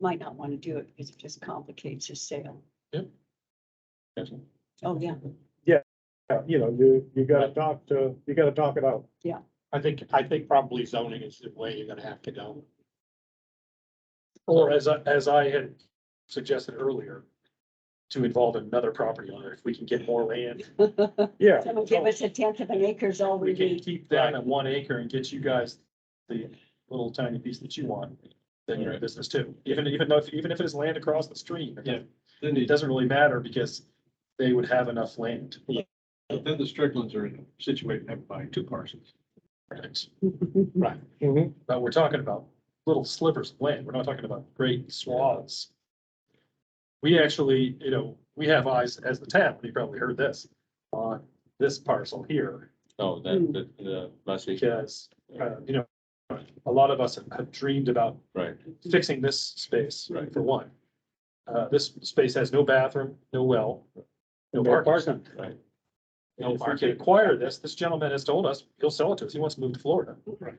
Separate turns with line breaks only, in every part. might not want to do it because it just complicates your sale.
Yes.
Oh, yeah.
Yeah, you know, you, you gotta talk to, you gotta talk it out.
I think, I think probably zoning is the way you're gonna have to go. Or as I, as I had suggested earlier, to involve another property owner, if we can get more land.
Yeah,
So give us a tenth of an acre is all we
We can
need.
keep that at one acre and get you guys the little tiny piece that you want, then you're in business too. Even, even though, even if it is land across the stream,
Yeah. Then
it
the,
doesn't really matter because they would have enough land.
then the Stricklands are situated up by two parcels.
Right.
mhm.
But we're talking about little slivers of land. We're not talking about great swaths. We actually, you know, we have eyes as the town, you probably heard this, on this parcel here,
Oh,
Mm.
that, the, the, last week,
because, uh, you know, a lot of us have dreamed about
right,
fixing this space,
Right.
for one. Uh, this space has no bathroom, no well, no
No
parking.
parking.
right.
And If we can acquire this, this gentleman has told us, he'll sell it to us. He wants to move to Florida.
Right.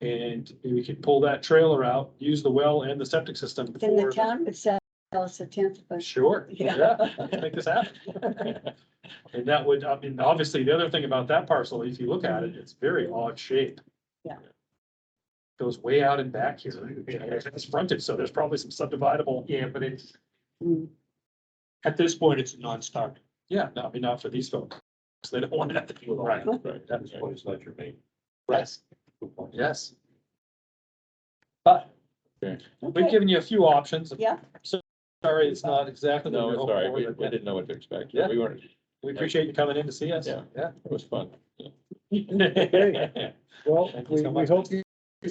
And we could pull that trailer out, use the well and the septic system
Then the
for.
town would sell us a tenth of a.
Sure,
Yeah.
yeah, let's make this happen. And that would, I mean, obviously, the other thing about that parcel, if you look at it, it's very odd shape.
Yeah.
Goes way out and back here. It's fronted, so there's probably some subdividable.
Yeah, but it's,
Mm.
at this point, it's a non-starter.
Yeah, no, I mean, not for these folks. They don't want to have to deal with all that.
Right, right.
At this point, it's not your main.
Yes. Yes. But we've
Okay.
given you a few options.
Yeah.
Sorry, it's not exactly. what
No,
we
it's all
hoped
right,
for,
we,
but
we didn't know what to expect,
Yeah.
we weren't,
We appreciate you coming in to see us.
Yeah.
Yeah.
it was fun. Yeah.
Okay.
Well,
Thank you
we,
so
we
much.
hope you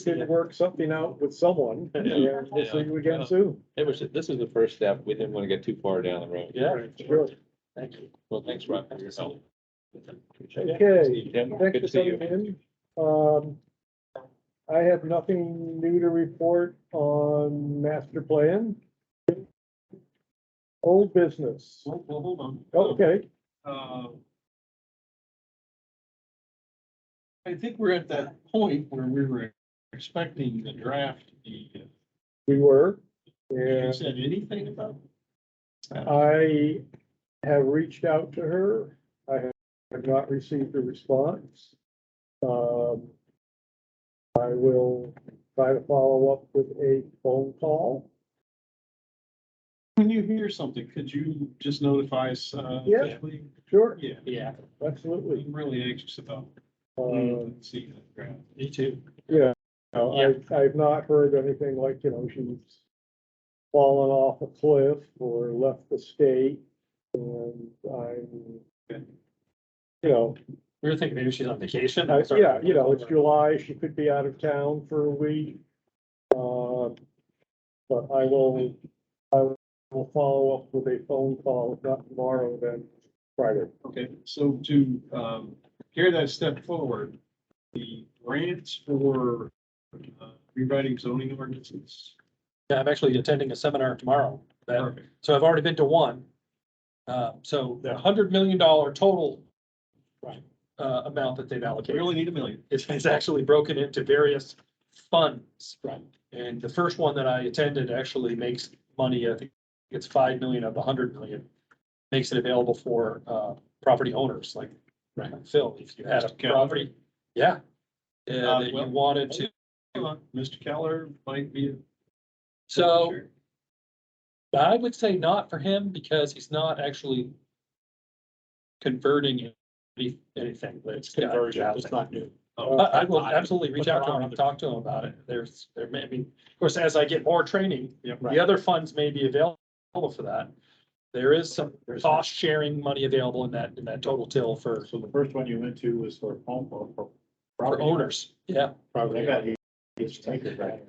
can work something out with someone. and We'll see you again soon.
It was, this is the first step, we didn't want to get too far down the road.
Yeah,
Sure.
thank you.
Well, thanks, Rob, for your help. Appreciate it.
Okay.
Tim,
Thanks
good
for
to see you.
coming in. Um, I have nothing new to report on master plan. Old business.
Well, well, hold on.
Oh,
Okay,
Uh, I think we're at that point where we were expecting the draft to be, uh,
we were.
you
And
said anything about?
I have reached out to her. I have not received a response. Um, I will try to follow up with a phone call.
When you hear something, could you just notify us? uh,
Yeah.
officially?
Sure,
Yeah,
Yeah,
absolutely.
I'm really anxious about,
Uh,
seeing the draft.
me too.
Yeah, no, I, I've not heard anything like, you know, she's fallen off a cliff or left the state. And I'm, you know,
We were thinking maybe she's on vacation.
I- Uh, yeah, you know, it's July, she could be out of town for a week. Uh, But I will, I will follow up with a phone call, if not tomorrow, then Friday.
Okay, so to um, carry that step forward, the grants for uh, rewriting zoning ordinances.
Yeah, I'm actually attending a seminar tomorrow. That- So I've already been to one. Uh, so the hundred million dollar total uh, amount that they've
We
allocated.
only need a million.
It's, it's actually broken into various funds. Right. And the first one that I attended actually makes money, I think it's five million of the hundred million. Makes it available for, uh, property owners, like, right, Phil, if you had a
Mr. Keller.
property, yeah.
Uh,
Uh, that you
well-
wanted to,
Come on, Mr. Keller might be. a-
so I would say not for him because he's not actually converting any- anything, but it's conversion, it's not new.
Oh,
I, I will absolutely reach out to him and talk to him about it. There's, there may, I mean, of course, as I get more training,
Yep.
the other funds may be available for that. There is some cost sharing money available in that, in that total till for,
So the first one you went to was for home or for.
for owners. Yeah,
Probably. got each taker back.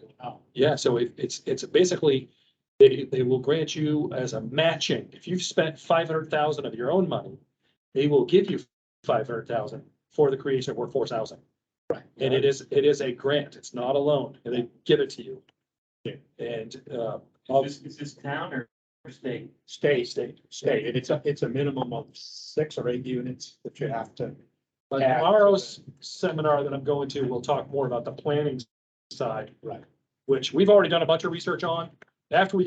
yeah. So it- it's, it's basically, they, they will grant you as a matching. If you've spent five hundred thousand of your own money, they will give you five hundred thousand for the creation of workforce housing. Right. And it is, it is a grant. It's not a loan. And they give it to you.
Yeah.
And, uh,
Is this, is this town or state?
Stay,
state, state, and it's a, it's a minimum of six or eight units that you have to.
But
Yeah.
tomorrow's seminar that I'm going to, we'll talk more about the planning side.
Right.
Which we've already done a bunch of research on. After we